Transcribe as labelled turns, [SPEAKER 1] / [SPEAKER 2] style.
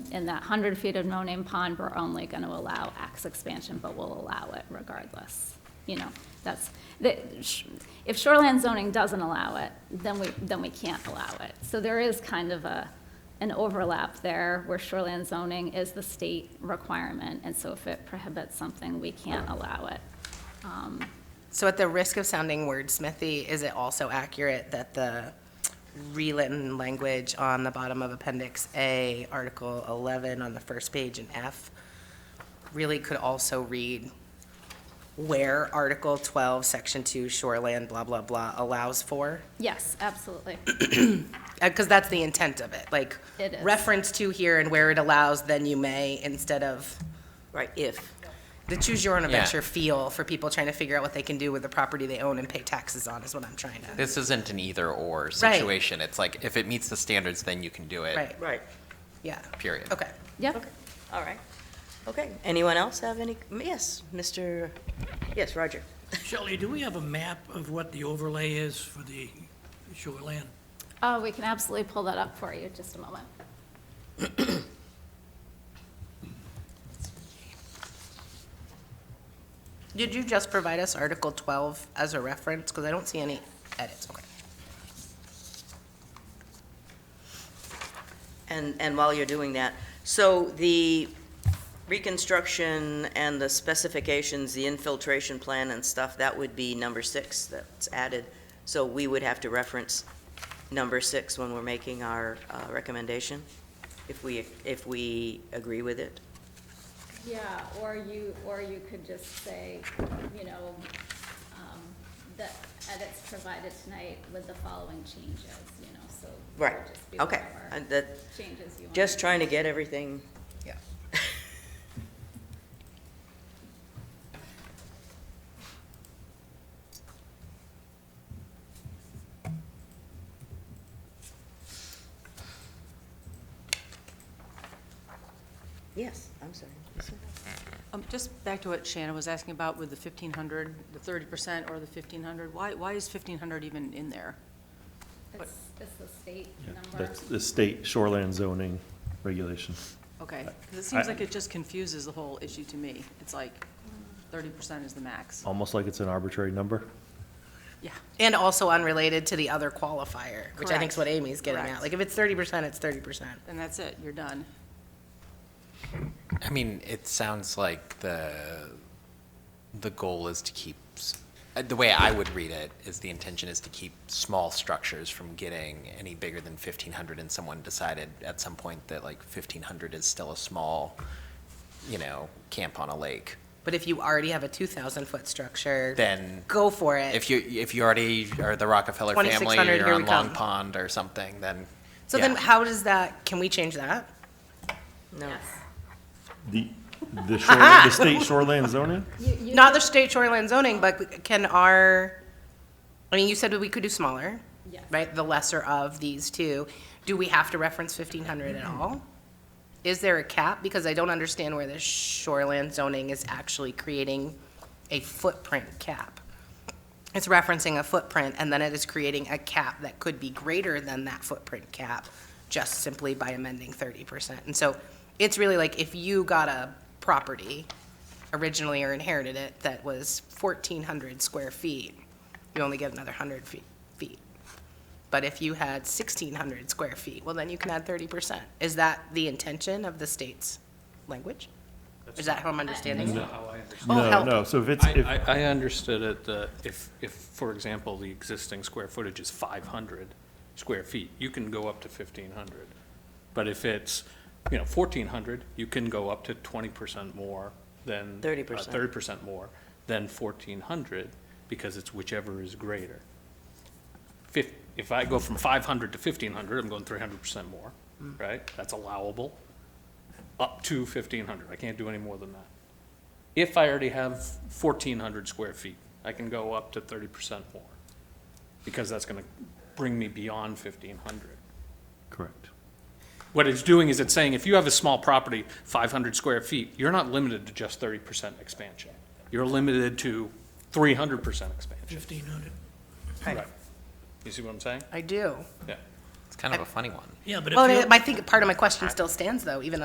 [SPEAKER 1] and that 100 feet of no-name pond, we're only going to allow X expansion, but we'll allow it regardless. You know, that's, the- sh- if shoreline zoning doesn't allow it, then we, then we can't allow it. So there is kind of a, an overlap there where shoreline zoning is the state requirement, and so if it prohibits something, we can't allow it.
[SPEAKER 2] So at the risk of sounding wordsmithy, is it also accurate that the relitten language on the bottom of Appendix A, Article 11 on the first page in F, really could also read where Article 12, Section 2, shoreland, blah, blah, blah, allows for?
[SPEAKER 1] Yes, absolutely.
[SPEAKER 2] Because uh, that's the intent of it, like
[SPEAKER 1] It is.
[SPEAKER 2] reference to here and where it allows, then you may, instead of
[SPEAKER 3] Right, if.
[SPEAKER 2] the choose your own adventure
[SPEAKER 4] Yeah.
[SPEAKER 2] feel for people trying to figure out what they can do with the property they own and pay taxes on is what I'm trying to.
[SPEAKER 4] This isn't an either-or
[SPEAKER 2] Right.
[SPEAKER 4] situation. It's like, if it meets the standards, then you can do it.
[SPEAKER 2] Right,
[SPEAKER 3] Right.
[SPEAKER 2] yeah.
[SPEAKER 4] Period.
[SPEAKER 2] Okay.
[SPEAKER 1] Yep.
[SPEAKER 3] Okay, all right. Okay, anyone else have any, yes, Mr., yes, Roger.
[SPEAKER 5] Shelley, do we have a map of what the overlay is for the shoreline?
[SPEAKER 1] Oh, we can absolutely pull that up for you, just a moment.
[SPEAKER 2] Did you just provide us Article 12 as a reference? Because I don't see any edits, okay.
[SPEAKER 3] And, and while you're doing that, so the reconstruction and the specifications, the infiltration plan and stuff, that would be number six that's added. So we would have to reference number six when we're making our uh, recommendation, if we, if we agree with it.
[SPEAKER 1] Yeah, or you, or you could just say, you know, um, the edits provided tonight with the following changes, you know, so. it would
[SPEAKER 3] Right,
[SPEAKER 1] just be
[SPEAKER 3] okay.
[SPEAKER 1] whatever
[SPEAKER 3] And that,
[SPEAKER 1] Changes you want.
[SPEAKER 3] just trying to get everything
[SPEAKER 2] Yeah.
[SPEAKER 3] Yes, I'm sorry.
[SPEAKER 6] Um, Just back to what Shannon was asking about with the 1,500, the 30% or the 1,500, why, why is 1,500 even in there?
[SPEAKER 1] It's, it's the state number.
[SPEAKER 7] That's the state shoreland zoning regulation.
[SPEAKER 6] Okay, 'cause it
[SPEAKER 7] I-
[SPEAKER 6] seems like it just confuses the whole issue to me. It's like 30% is the max.
[SPEAKER 7] Almost like it's an arbitrary number.
[SPEAKER 6] Yeah,
[SPEAKER 2] And also unrelated to the other qualifier, which I think is
[SPEAKER 6] Correct.
[SPEAKER 2] what Amy's getting at.
[SPEAKER 6] Correct.
[SPEAKER 2] Like, if it's 30%, it's 30%.
[SPEAKER 6] and that's it, you're done.
[SPEAKER 4] I mean, it sounds like the, the goal is to keep, s- uh, the way I would read it is the intention is to keep small structures from getting any bigger than 1,500, and someone decided at some point that like 1,500 is still a small, you know, camp on a lake.
[SPEAKER 2] But if you already have a 2,000-foot structure,
[SPEAKER 4] Then
[SPEAKER 2] go for it.
[SPEAKER 4] if you, if you already are the Rockefeller family,
[SPEAKER 2] 2,600,
[SPEAKER 4] or
[SPEAKER 2] here
[SPEAKER 4] you're
[SPEAKER 2] we
[SPEAKER 4] on Long
[SPEAKER 2] come.
[SPEAKER 4] Pond or something, then.
[SPEAKER 2] So then
[SPEAKER 4] yeah.
[SPEAKER 2] how does that, can we change that?
[SPEAKER 3] No.
[SPEAKER 7] The, the shoreline, the state shoreland zoning?
[SPEAKER 2] Not the state shoreline zoning, but can our, I mean, you said we could do smaller,
[SPEAKER 1] Yes.
[SPEAKER 2] right? The lesser of these two. Do we have to reference 1,500 at all? Is there a cap? Because I don't understand where the shoreline zoning is actually creating a footprint cap. It's referencing a footprint, and then it is creating a cap that could be greater than that footprint cap just simply by amending 30%. And so it's really like if you got a property originally or inherited it that was 1,400 square feet, you only get another 100 fe- feet. But if you had 1,600 square feet, well, then you can add 30%. Is that the intention of the state's language? Is that how I'm understanding it? Oh,
[SPEAKER 7] No,
[SPEAKER 2] help.
[SPEAKER 7] no, so if it's, if,
[SPEAKER 8] I, I I understood it, that if, if, for example, the existing square footage is 500 square feet, you can go up to 1,500. But if it's, you know, 1,400, you can go up to 20% more than.
[SPEAKER 3] 30%.
[SPEAKER 8] uh, 30% more than 1,400, because it's whichever is greater. Fif- If I go from 500 to 1,500, I'm going 300% more, right? That's allowable, up to 1,500. I can't do any more than that if I already have fourteen hundred square feet, I can go up to thirty percent more. Because that's gonna bring me beyond fifteen hundred.
[SPEAKER 7] correct.
[SPEAKER 8] What it's doing is it's saying, if you have a small property, five hundred square feet, you're not limited to just thirty percent expansion. You're limited to three hundred percent expansion.
[SPEAKER 5] Fifteen hundred?
[SPEAKER 8] Right. You see what I'm saying?
[SPEAKER 2] I do.
[SPEAKER 8] Yeah.
[SPEAKER 4] It's kind of a funny one.
[SPEAKER 5] Yeah, but if
[SPEAKER 2] Well,
[SPEAKER 5] you
[SPEAKER 2] I think part of my question still stands, though, even